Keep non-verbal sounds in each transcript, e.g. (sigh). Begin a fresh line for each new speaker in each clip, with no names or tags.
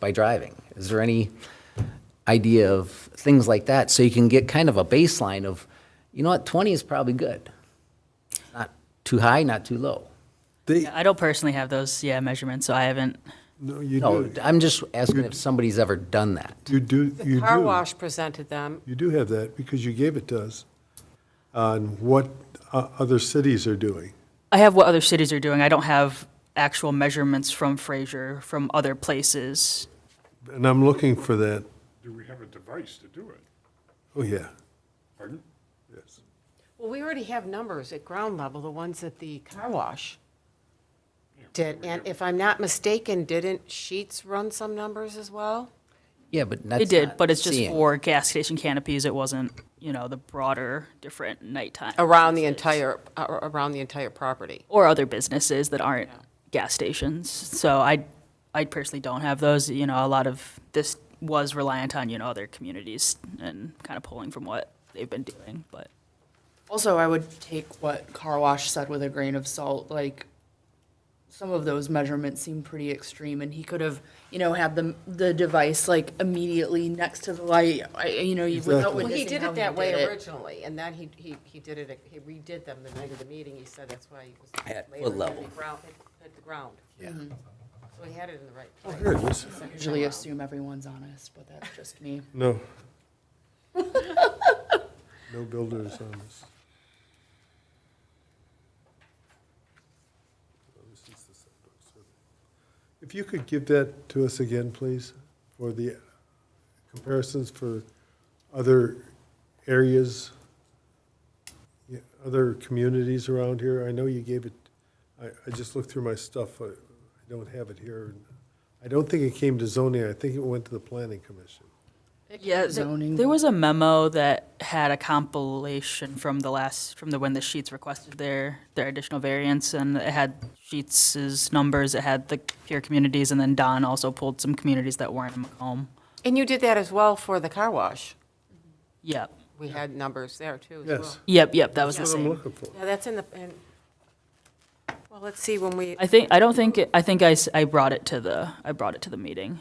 by driving? Is there any idea of things like that? So you can get kind of a baseline of, you know what, 20 is probably good. Not too high, not too low.
They,
Yeah, I don't personally have those, yeah, measurements, so I haven't.
no, you
No,
do,
I'm just asking if somebody's ever done that.
you do, you
Car
do.
wash presented them.
You do have that because you gave it to us on what uh, other cities are doing.
I have what other cities are doing. I don't have actual measurements from Fraser, from other places.
And I'm looking for that,
Do we have a device to do it?
oh, yeah,
Pardon?
yes.
Well, we already have numbers at ground level, the ones that the car wash did. And if I'm not mistaken, didn't Sheets run some numbers as well?
Yeah, but that's
They did,
not
but it's just
seeing.
for gas station canopies. It wasn't, you know, the broader, different nighttime.
Around the
businesses.
entire, uh, around the entire property.
Or other businesses that aren't gas stations. So I, I personally don't have those. You know, a lot of this was reliant on, you know, other communities and kind of pulling from what they've been doing, but.
Also, I would take what Car Wash said with a grain of salt, like, some of those measurements seem pretty extreme, and he could have, you know, had the, the device like immediately next to the light, I, you know, you- without
Exactly.
Well, he
witnessing
did
how
it
he
that way
did it.
originally, and then he, he, he did it, he redid them the night of the meeting. He said that's why he was
At
later
what
at
level?
the ground, at- at the ground. Yeah.
Mm-hmm.
So he had Oh, it in the right place.
Here it is.
Usually assume everyone's honest, but that's just me.
(laughs) No. No builders on this. If you could give that to us again, please, for the comparisons for other areas, yeah, other communities around here. I know you gave it, I, I just looked through my stuff. I I don't have it here. I don't think it came to zoning. I think it went to the planning commission.
Yeah,
zoning.
there, there was a memo that had a compilation from the last, from the when the sheets requested their, their additional variance, and it had Sheets's numbers, it had the peer communities, and then Don also pulled some communities that weren't in Macomb.
And you did that as well for the car wash.
Yep,
We had numbers there too as well.
Yes.
yep, yep, that was the
That's what I'm
same.
looking for.
Yeah, that's in the, and, well, let's see when we,
I think, I don't think, it- I think I, s- I brought it to the, I brought it to the meeting.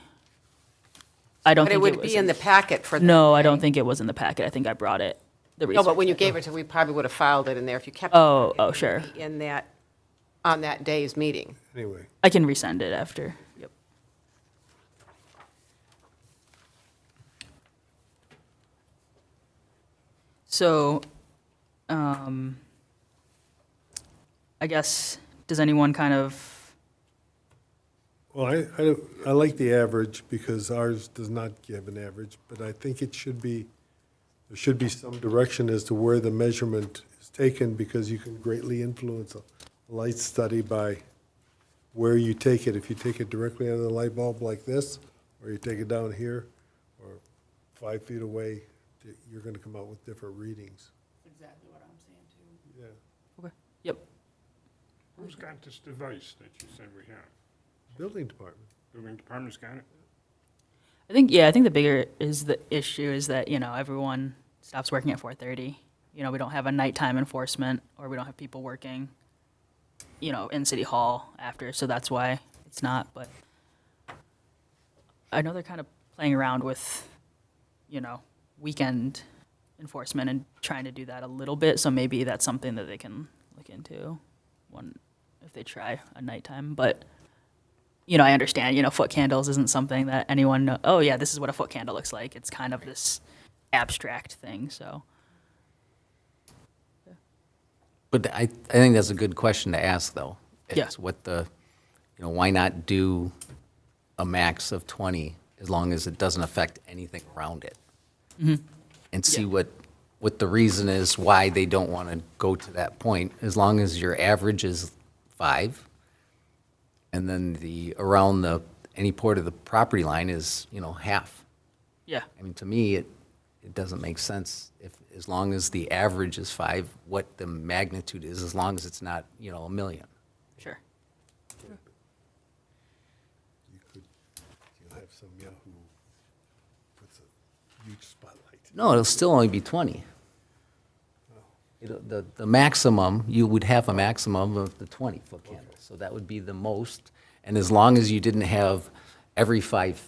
I don't
but
think
it
it
would
was.
be in the packet for. the-
No, I don't think it was in the packet, I think I brought it. the
No, but when you
research.
gave it to, we probably would have filed it in there if you kept. it
Oh, oh, sure,
In that, on that day's meeting.
Anyway,
I can resend it after, yep. So, um, I guess, does anyone kind of,
well, I, I, I like the average because ours does not give an average, but I think it should be, there should be some direction as to where the measurement is taken because you can greatly influence a light study by where you take it. If you take it directly under the light bulb like this, or you take it down here, or five feet away, you're gonna come out with different readings.
yep,
Who's got this device that you said we have?
Building department.
Building department's got it?
I think, yeah, I think the bigger is the issue is that, you know, everyone stops working at four thirty. You know, we don't have a nighttime enforcement, or we don't have people working, you know, in City Hall after, so that's why it's not, but I know they're kind of playing around with, you know, weekend enforcement and trying to do that a little bit, so maybe that's something that they can look into one, if they try a nighttime, but you know, I understand, you know, foot candles isn't something that anyone know, oh yeah, this is what a foot candle looks like. It's kind of this abstract thing, so.
But I, I think that's a good question to ask, though.
Yeah.
Is what the, you know, why not do a max of 20 as long as it doesn't affect anything around it? And see
Mm-hmm. Yeah.
what, what the reason is why they don't want to go to that point, as long as your average is five. And then the, around the, any part of the property line is, you know, half.
Yeah.
I mean, to me, it, it doesn't make sense if, as long as the average is five, what the magnitude is, as long as it's not, you know, a million.
Sure.
You could, you'll have some yahoo puts a huge spotlight.
No, it'll still only be twenty. It'll- The, the maximum, you would have a maximum of the twenty foot candles, so that would be the most. And as long as you didn't have every five